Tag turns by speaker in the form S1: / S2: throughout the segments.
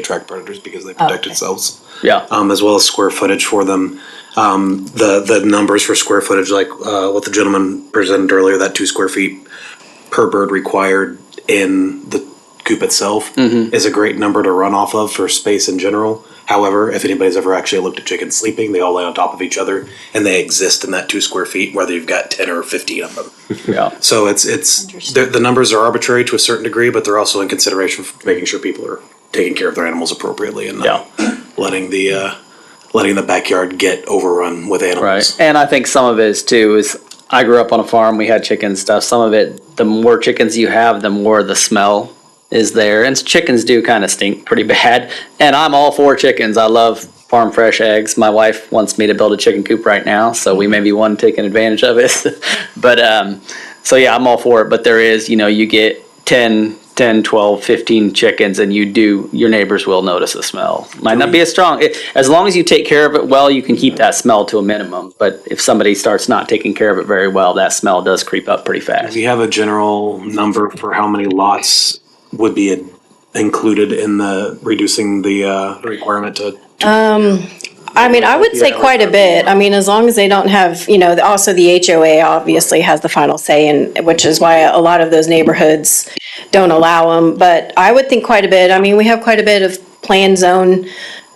S1: attract predators because they protect
S2: okay.
S1: themselves,
S3: Yeah.
S1: um, as well as square footage for them. Um, the the numbers for square footage, like uh, what the gentleman presented earlier, that two square feet per bird required in the coop itself is a great number to run off of for space in general. However, if anybody's ever actually looked at chickens sleeping, they all lay on top of each other and they exist in that two square feet, whether you've got ten or fifteen of them.
S3: Yeah.
S1: So it's it's the,
S2: Interesting.
S1: the numbers are arbitrary to a certain degree, but they're also in consideration for making sure people are taking care of their animals appropriately and not letting the uh, letting the backyard get overrun with animals.
S3: Right. And I think some of it is too is I grew up on a farm. We had chickens and stuff. Some of it, the more chickens you have, the more the smell is there. And chickens do kind of stink pretty bad. And I'm all for chickens. I love farm fresh eggs. My wife wants me to build a chicken coop right now, so we may be one taking advantage of it. but um, so yeah, I'm all for it. But there is, you know, you get 10. 10 12 15 chickens and you do your neighbors will notice the smell might not be as strong It- as long as you take care of it well you can keep that smell to a minimum but if somebody starts not taking care of it very well that smell does creep up pretty fast
S1: Do you have a general number for how many lots would be included in the reducing the uh, requirement to?
S2: I mean, I would say
S1: Yeah.
S2: quite a bit. I mean, as long as they don't have, you know, also the HOA obviously has the final say and, which is why a lot of those neighborhoods don't allow them. But I would think quite a bit. I mean, we have quite a bit of planned zone,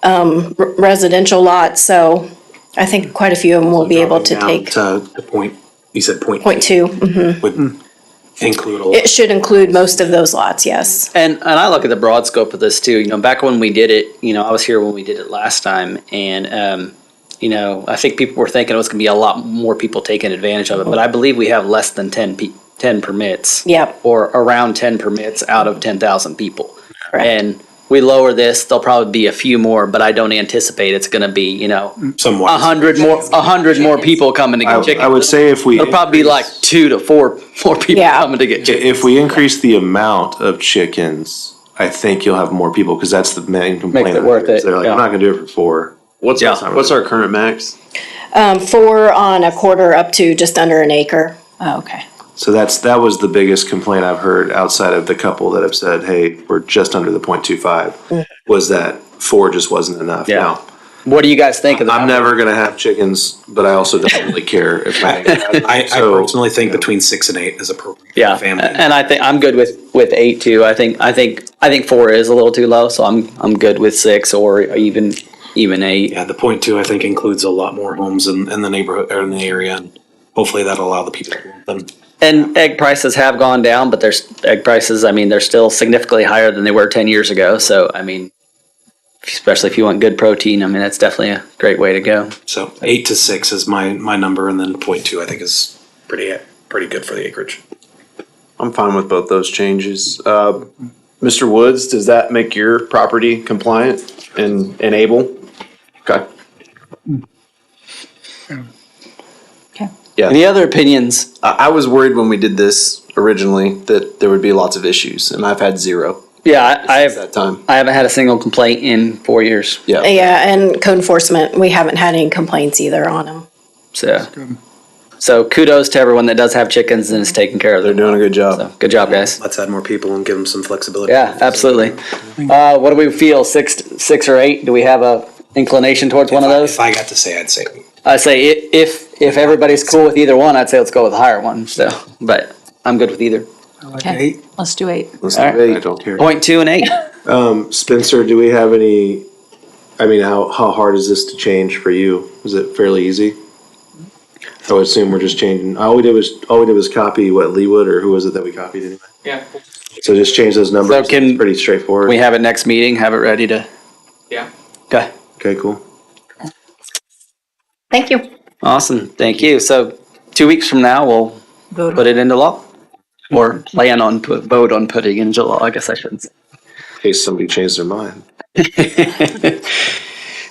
S2: um, r- residential lots, so I think quite a few of them will be able to
S1: Dropping down
S2: take
S1: to Mm-hmm. the point. You said point
S2: point two. Mhm.
S1: would include all.
S2: It should include most of those lots, yes.
S3: And and I look at the broad scope of this too. You know, back when we did it, you know, I was here when we did it last time, and um, you know, I think people were thinking it was going to be a lot more people taking advantage of it, but I believe we have less than 10, pe- 10 permits.
S2: Yep.
S3: Or around ten permits out of ten thousand people.
S2: Correct.
S3: And we lower this, there'll probably be a few more, but I don't anticipate it's going to be you know
S1: Somewhat.
S3: a hundred more a hundred more people coming to get
S4: I,
S3: chickens.
S4: I would say if we.
S3: it'll probably be like two to four more people
S2: Yeah.
S3: coming to get chickens.
S4: If we increase the amount of chickens, I think you'll have more people, because that's the main complaint.
S3: it worth it,
S4: They're like,
S3: yeah.
S4: I'm not gonna do it for four.
S5: What's,
S3: Yeah.
S5: our- what's our current max?
S2: Um, four on a quarter up to just under an acre.
S6: Oh, okay.
S4: So that's, that was the biggest complaint I've heard outside of the couple that have said, hey, we're just under the point two five, was that four just wasn't enough.
S3: Yeah.
S4: Now,
S3: What do you guys think of that?
S4: I'm never gonna have chickens, but I also don't really care if I.
S1: I, I
S4: So-
S1: personally think between six and eight is appropriate. for
S3: Yeah,
S1: a Family.
S3: and I think I'm good with with eight too. I think I think I think four is a little too low, so I'm I'm good with six or even even eight.
S1: Yeah, the point two, I think, includes a lot more homes in, in the neighborhood or in the area, and hopefully that'll allow the people to want them.
S3: And egg prices have gone down, but there's egg prices. I mean, they're still significantly higher than they were ten years ago. So I mean, especially if you want good protein, I mean that's definitely a great way to go.
S1: So eight to six is my my number, and then point two, I think, is pretty pretty good for the acreage.
S5: I'm fine with both those changes. Uh, Mr. Woods, does that make your property compliant and, and able? Okay.
S6: Okay.
S3: Any other opinions?
S5: I, I was worried when we did this originally that there would be lots of issues and I've had zero
S3: Yeah, I,
S5: at that
S3: I've
S5: time.
S3: I haven't had a single complaint in four years.
S5: Yeah.
S2: Yeah, and code enforcement, we haven't had any complaints either on them.
S3: So so kudos to everyone that does have chickens and is taking care of
S5: They're
S3: them.
S5: doing a good
S3: So
S5: job.
S3: good job, guys.
S1: Let's add more people and give them some flexibility.
S3: Yeah, absolutely. Uh, what do we feel? Six, six or eight? Do we have a inclination towards one of
S1: If
S3: those?
S1: I got to say, I'd say
S3: I say i- if if everybody's cool with either one, I'd say let's go with the higher one. So, but I'm good with either.
S6: Okay. Let's do eight.
S4: Let's
S3: All right.
S4: do eight. I don't care.
S3: Point two and eight.
S4: Spencer, do we have any? I mean, how how hard is this to change for you? Is it fairly easy? I would assume we're just changing. All we did was all we did was copy what Leewood or who was it that we copied anyway.
S7: Yeah,
S4: So just change those numbers.
S3: So can-
S4: it's pretty straightforward.
S3: We have it next meeting. Have it ready to.
S7: yeah.
S3: Okay.
S4: okay, cool.
S2: Thank you.
S3: Awesome. Thank you. So, two weeks from now, we'll
S6: Vote.
S3: put it into law, or plan on put, vote on putting into law. I guess I shouldn't. say.
S4: In case somebody changed their mind.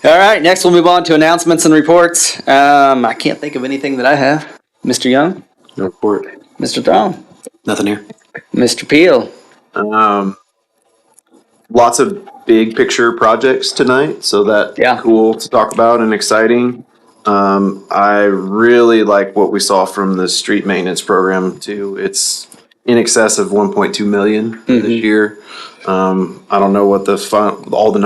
S3: All right. Next, we'll move on to announcements and reports. Um, I can't think of anything that I have. Mr. Young,
S4: No report.
S3: Mr. Throm,
S1: nothing here.
S3: Mr. Peel.
S5: Um, lots of big picture projects tonight, so that
S3: Yeah.
S5: cool to talk about and exciting. Um, I really like what we saw from the street maintenance program too. It's in excess of 1.2 million this year. Um, I don't know what the fun, all the